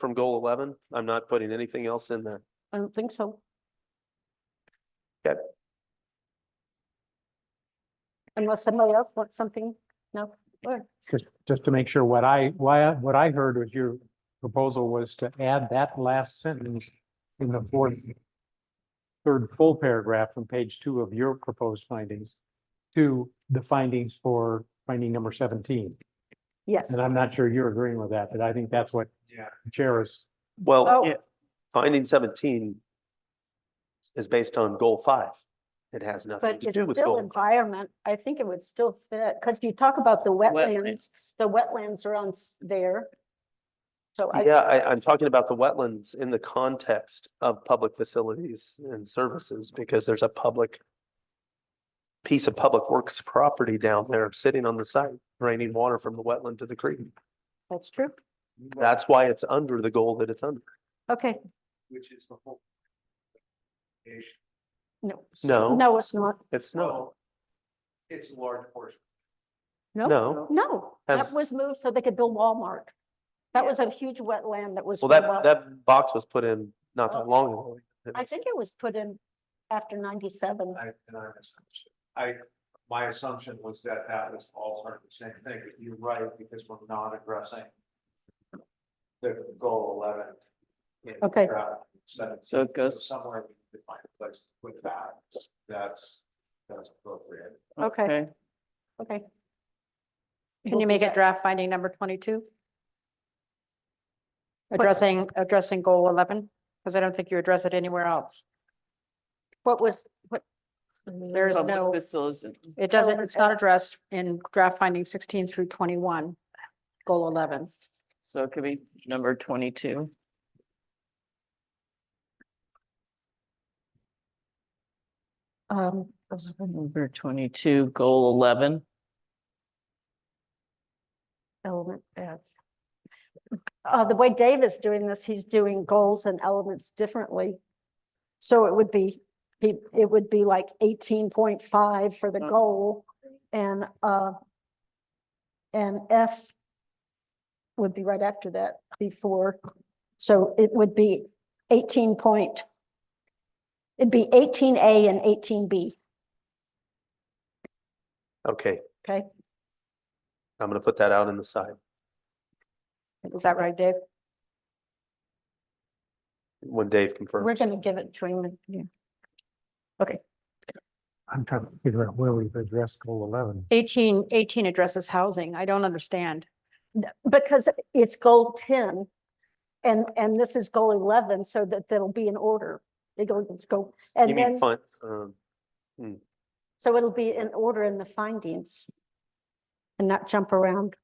from goal eleven? I'm not putting anything else in there. I don't think so. Okay. Unless somebody else wants something, no, or, Just, just to make sure, what I, why, I- what I heard was your proposal was to add that last sentence in the fourth, third full paragraph from page two of your proposed findings to the findings for finding number seventeen. yes, And I'm not sure you're agreeing with that, but I think that's what Yeah. the Chair is. Well, Oh. yeah, finding seventeen is based on goal five. It has nothing but to it's do with still goal. environment, I think it would still fit, because you talk about the wetlands, the wetlands are on s- there. So I, Yeah, I, I'm talking about the wetlands in the context of public facilities and services because there's a public piece of public works property down there sitting on the site, draining water from the wetland to the creek. that's true, That's why it's under the goal that it's under. okay, Which is the whole. Asian. no, No. no, it's not, It's no, It's a large portion. no, no. no, that Has- was moved so they could build Walmart. That was a huge wetland that was. Well, for that, Wal- that box was put in not that long ago. Oh. I think it was put in after ninety-seven. I, and I misunderstood. I, my assumption was that that was all part of the same thing, but you're right, because we're not addressing the goal eleven. in Okay. paragraph seven. So it goes- Somewhere we need to find a place to put that. That's, that's appropriate. Okay. Okay. Can you make it draft finding number twenty-two? Addressing, addressing goal eleven, because I don't think you address it anywhere else. What was, what? There is Public no, facilities. it doesn't, Oh, it's not addressed in draft finding sixteen through twenty-one, goal eleven. So it could be number twenty-two. Um, Number twenty-two, goal eleven. element F. Uh, the way Dave is doing this, he's doing goals and elements differently. So it would be, he, it would be like eighteen point five for the Mm. goal and, uh, and F would be right after that before. So it would be eighteen point, it'd be eighteen A and eighteen B, Okay, okay? I'm gonna put that out in the side. Is that right, Dave? when Dave We're confirms. gonna give it to him, yeah. I'm trying to figure out where we've addressed goal eleven. Eighteen, eighteen addresses housing. I don't understand. Because it's goal ten and, and this is goal eleven, so that that'll be in order. They go, let's go, You and mean then, fun, um, so it'll be in order in the findings and not jump around.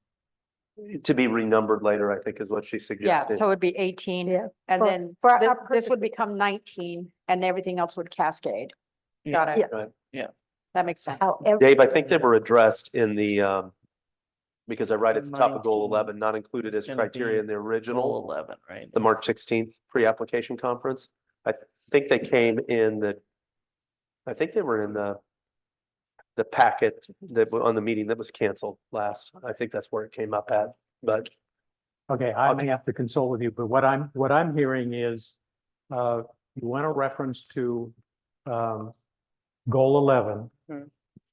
to be renumbered later, I think is what she Yeah, suggested. so it'd be eighteen, Yeah. and for- then for our thi- this purposes. would become nineteen, and everything else would cascade. Got Yeah. it? Right. Yeah. That makes sense. How ev- Dave, I think they were addressed in the, um, because I write at the top of goal 19. eleven, not included as It's gonna criteria be in the Goal original, eleven, right? the March sixteenth pre-application conference. I th- think they came in the, I think they were in the the packet that, wa- on the meeting that was canceled last. I think that's where it came up at, but Okay, I Okay. may have to consult with you, but what I'm, what I'm hearing is, uh, you want a reference to, um, goal eleven. Hmm.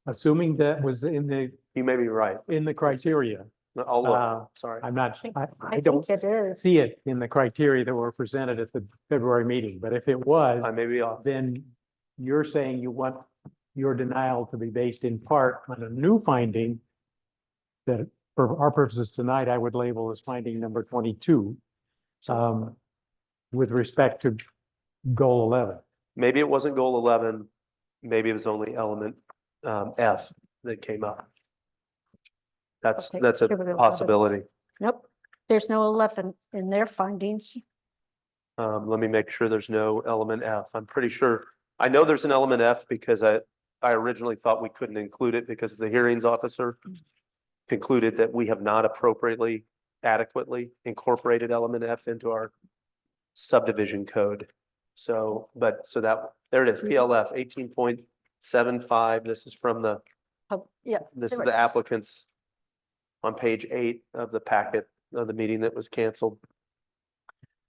Assuming that was in the, you may be right. in the criteria. I'll Uh, look, sorry. I'm not, I, I I don't think it is. see it in the criteria that were presented at the February meeting, but if it was, I uh, may be off. uh, then you're saying you want your denial to be based in part on a new finding that for our purposes tonight, I would label as finding number twenty-two um, with respect to goal eleven. Maybe it wasn't goal eleven, maybe it was only element um F that came up. That's, Okay, that's a give it a- possibility. Nope, there's no eleven in their findings. Um, let me make sure there's no element F. I'm pretty sure, I know there's an element F because I, I originally thought we couldn't include it because the hearings officer concluded that we have not appropriately adequately incorporated element F into our subdivision code. So, but, so that, there it is, PLF eighteen point seven five. This is from the, Pub- Oh, Yeah, this is Correct. the applicant's on page eight of the packet of the meeting that was canceled.